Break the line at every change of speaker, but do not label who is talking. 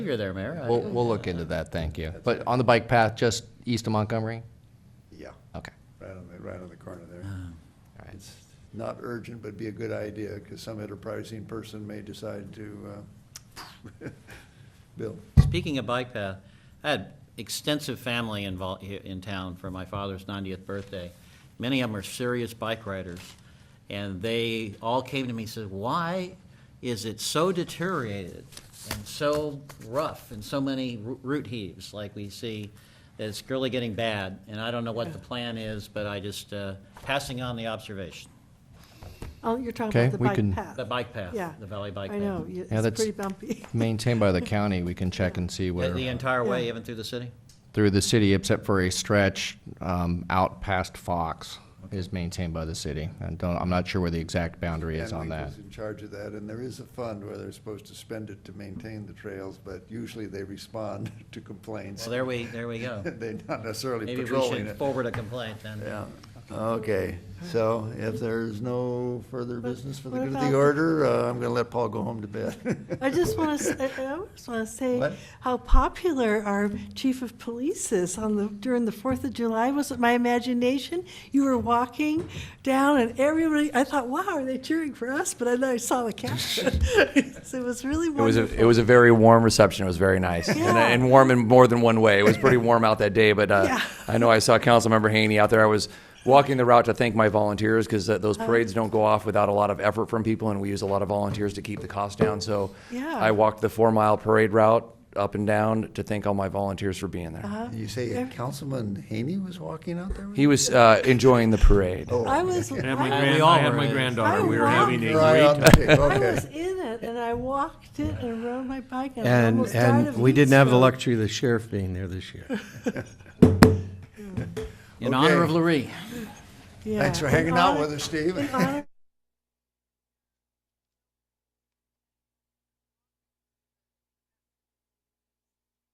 You're there, Mayor.
We'll, we'll look into that, thank you. But on the bike path, just east of Montgomery?
Yeah,
Okay,
right on the, right on the corner there.
all right.
It's not urgent, but be a good idea, because some enterprising person may decide to, uh, build.
Speaking of bike path, I had extensive family involved in town for my father's 90th birthday. Many of them are serious bike riders, and they all came to me and said, "Why is it so deteriorated and so rough and so many ro- root heaves like we see? It's really getting bad, and I don't know what the plan is, but I just uh, passing on the observation."
Oh, you're talking
Okay,
about the
we can-
bike path.
The bike path,
Yeah.
the valley bike
I know,
path.
you-
Yeah,
it's
that's-
pretty bumpy.
Maintained by the county, we can check and see
The
where,
the entire way,
Yeah.
even through the city?
through the city, except for a stretch um, out past Fox is maintained by the city. I don't, I'm not sure where the exact boundary is on
Henley
that.
was in charge of that, and there is a fund where they're supposed to spend it to maintain the trails, but usually they respond to complaints.
Well, there we, there we go.
They're not necessarily
Maybe we
patrolling
should
it.
forward a complaint then.
Yeah, okay, so if there's no further business for the
what
good of
about
the
the-
order, uh, I'm gonna let Paul go home to bed.
I just want to, I just want to
What?
say how popular our chief of police is on the, during the Fourth of July. Was it my imagination? You were walking down and everybody, I thought, wow, are they cheering for us? But then I saw the caption. So It was really
It was
wonderful.
a, it was a very warm reception. It was very nice and,
Yeah.
and warm in more than one way. It was pretty warm out that day, but uh,
Yeah.
I know I saw Councilmember Haney out there. I was walking the route to thank my volunteers because uh,
Uh-huh.
those parades don't go off without a lot of effort from people, and we use a lot of volunteers to keep the cost down. So
Yeah.
I walked the four mile parade route up and down to thank all my volunteers for being there.
Uh-huh.
You say Councilman Haney was walking out there? with
He was uh, enjoying the parade.
I was.
I had my,
I
grand,
was-
all
I had my
were.
granddaughter.
I
We were
walked
having a
you? Right on
great
the tape,
I
okay.
was in it and I walked it and rode my bike and I
And,
almost died
and
of
we
heat
didn't have the
stroke.
luxury of the sheriff being there this year.
In honor of
Okay.
Larry.
Yeah,
Thanks for
in
hanging out
honor-
with us, Steve.
in honor